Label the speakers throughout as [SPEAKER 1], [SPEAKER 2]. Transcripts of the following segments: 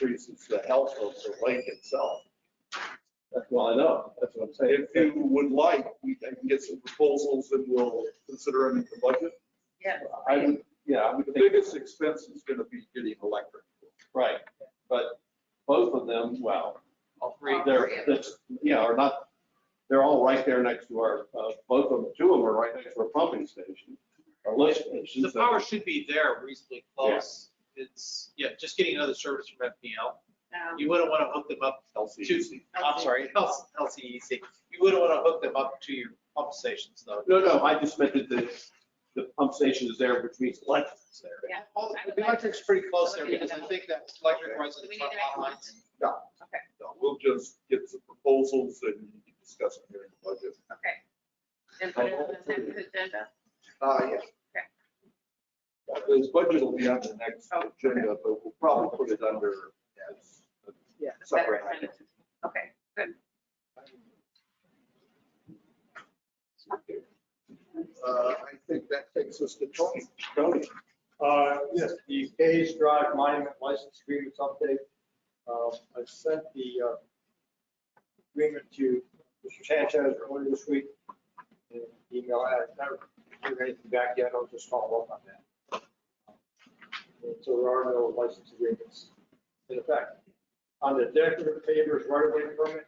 [SPEAKER 1] increases the health of the lake itself.
[SPEAKER 2] That's well, I know, that's what I'm saying.
[SPEAKER 1] If you would like, we I can get some proposals and we'll consider them in the budget.
[SPEAKER 3] Yeah.
[SPEAKER 2] I would, yeah, I would
[SPEAKER 1] The
[SPEAKER 2] think,
[SPEAKER 1] biggest expense is going to be getting electric.
[SPEAKER 2] right, but both of them, well,
[SPEAKER 3] All three.
[SPEAKER 2] they're, that's, yeah, are not, they're all right there next to our, uh, both of them, two of them are right next to our pumping station, our lift station.
[SPEAKER 4] The
[SPEAKER 2] so-
[SPEAKER 4] power should be there reasonably close. It's, yeah, just getting another service from FPL.
[SPEAKER 3] Um,
[SPEAKER 4] You wouldn't want to hook them up to, I'm
[SPEAKER 3] LCEC.
[SPEAKER 5] E.
[SPEAKER 4] sorry, E, LCEC. You wouldn't want to hook them up to your pump stations though.
[SPEAKER 2] No, no, I just meant that the, the pump station is there, which means electric's there.
[SPEAKER 3] Yeah.
[SPEAKER 4] Well, the electric's pretty close there because I think that electric runs
[SPEAKER 3] Do
[SPEAKER 4] in
[SPEAKER 3] we
[SPEAKER 4] the
[SPEAKER 3] need to make
[SPEAKER 4] front lot
[SPEAKER 3] a
[SPEAKER 4] lines.
[SPEAKER 3] motion?
[SPEAKER 1] So We'll just get some proposals and you can discuss them here in the budget.
[SPEAKER 3] Okay. And put it on the next agenda?
[SPEAKER 1] Uh, yeah. Uh, This budget will be on the next
[SPEAKER 3] Oh, okay.
[SPEAKER 1] agenda, but we'll probably put it under as a separate item.
[SPEAKER 3] Okay, good.
[SPEAKER 1] Uh, I think that takes us to Tony. Tony,
[SPEAKER 6] Uh, Yes, the Hayes Drive Monument License Agreement update. Um, I sent the uh, agreement to Mr. Sanchez earlier this week. in an Email, I haven't heard anything back yet, I'll just follow up on that. And So there are no license agreements in effect. On the decorative pavers right-of-way permit,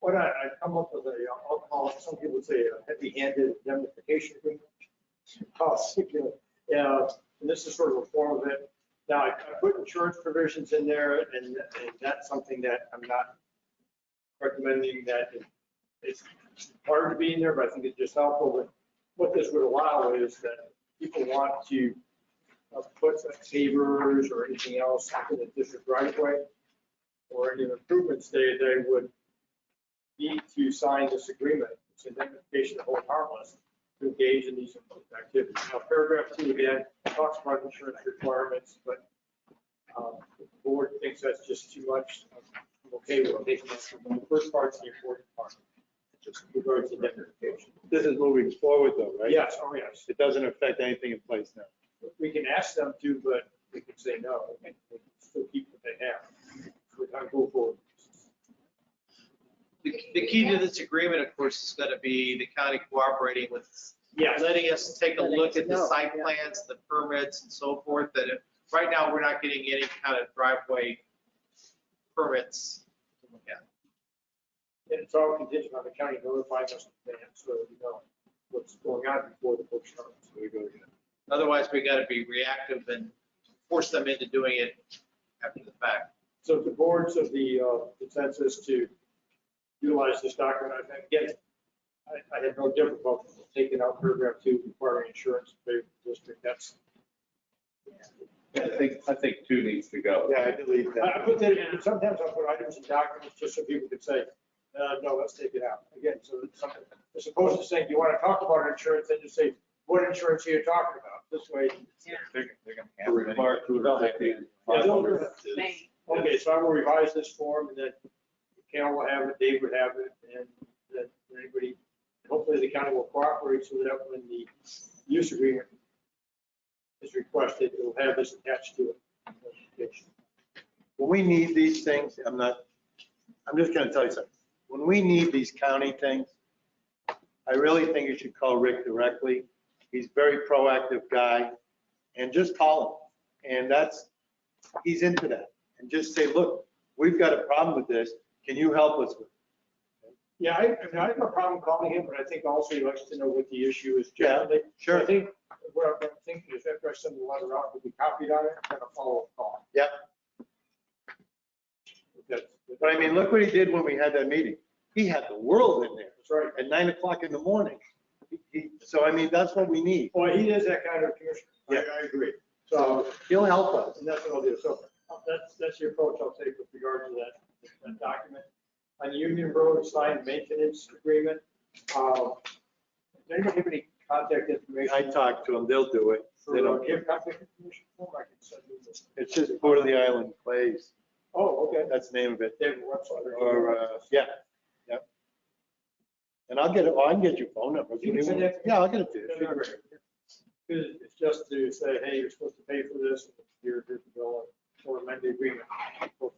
[SPEAKER 6] what I, I come up with a, uh, I'll call it, some people say a heavy-handed indemnification agreement. Oh, stupid. Yeah, and this is sort of a form of it. Now, I I put insurance provisions in there, and and that's something that I'm not recommending that it- it's hard to be in there, but I think it's just helpful. But What this would allow is that people want to uh, put pavers or anything else in the district right of way or any improvements, they, they would need to sign this agreement, it's an invitation to hold harmless, to engage in these activities. Now, paragraph two again talks about insurance requirements, but um, if the board thinks that's just too much. I'm okay with taking this from the first part's the important part, just regards to identification.
[SPEAKER 7] This is moving forward though, right?
[SPEAKER 6] Yes, oh yes,
[SPEAKER 7] It doesn't affect anything in place now.
[SPEAKER 6] we can ask them to, but we can say no, and they can still keep what they have. We're not going forward.
[SPEAKER 4] The the key to this agreement, of course, is going to be the county cooperating with
[SPEAKER 6] Yes.
[SPEAKER 4] letting us take a
[SPEAKER 5] Letting
[SPEAKER 4] look
[SPEAKER 5] us
[SPEAKER 4] at the
[SPEAKER 5] know,
[SPEAKER 4] site
[SPEAKER 5] yeah.
[SPEAKER 4] plans, the permits and so forth, that if, right now, we're not getting any kind of driveway permits. to look at.
[SPEAKER 6] And it's all contingent on the county notifying us in advance, so we know what's going on before the book starts.
[SPEAKER 7] Here we go again.
[SPEAKER 4] Otherwise, we got to be reactive and force them into doing it after the fact.
[SPEAKER 6] So the boards of the uh, consensus to utilize this document, I think, again, I, I had no difficulty taking out paragraph two requiring insurance to pay for the district. That's,
[SPEAKER 2] I think, I think two needs to go.
[SPEAKER 7] Yeah, I delete
[SPEAKER 6] I I
[SPEAKER 7] that.
[SPEAKER 6] put that, in. sometimes I put items in documents just so people can say, uh, no, let's take it out. Again, so it's something, as opposed to saying, you want to talk about insurance, then you say, what insurance are you talking about? This way.
[SPEAKER 3] Yeah.
[SPEAKER 2] Required to affect the-
[SPEAKER 6] Yeah, they'll-
[SPEAKER 3] May.
[SPEAKER 6] Okay, so I will revise this form and then Cal will have it, Dave would have it, and that anybody, hopefully the county will cooperate so that when the use agreement is requested, it'll have this attached to it.
[SPEAKER 7] When we need these things, I'm not, I'm just gonna tell you something. When we need these county things, I really think you should call Rick directly. He's a very proactive guy. And just call him. And that's, he's into that. And just say, look, we've got a problem with this. Can you help us with?
[SPEAKER 6] Yeah, I, I mean, I have no problem calling him, but I think also he likes to know what the issue is
[SPEAKER 7] Yeah,
[SPEAKER 6] generally.
[SPEAKER 7] it?" Sure.
[SPEAKER 6] I think what I'm thinking is after I send the letter out, it'll be copied on it, and a follow-up call.
[SPEAKER 7] Yep.
[SPEAKER 6] That's-
[SPEAKER 7] But I mean, look what he did when we had that meeting. He had the world in there
[SPEAKER 6] That's right.
[SPEAKER 7] at nine o'clock in the morning. He- he- So I mean, that's what we need.
[SPEAKER 6] Well, he is that kind of commissioner. I-
[SPEAKER 7] Yeah.
[SPEAKER 6] I agree. So,
[SPEAKER 7] He'll help us.
[SPEAKER 6] and that's what I'll do. So that's, that's your approach I'll take with regard to that, that document. On the Union Road sign maintenance agreement, uh, does anybody have any contact information?
[SPEAKER 7] I talked to him, they'll do it.
[SPEAKER 6] For,
[SPEAKER 7] They
[SPEAKER 6] uh, do
[SPEAKER 7] don't
[SPEAKER 6] you
[SPEAKER 7] care.
[SPEAKER 6] have contact information? form? I can send you this.
[SPEAKER 7] It's just Port of the Island Plays.
[SPEAKER 6] Oh, okay.
[SPEAKER 7] That's the name of it.
[SPEAKER 6] They have a website.
[SPEAKER 7] Or, uh, yeah, yep. And I'll get it, oh, I can get your phone number.
[SPEAKER 6] You can send that to me.
[SPEAKER 7] Yeah, I'll get it to
[SPEAKER 6] No,
[SPEAKER 7] you.
[SPEAKER 6] no, no. 'Cause it's just to say, hey, you're supposed to pay for this, and here's the bill. or amend the agreement for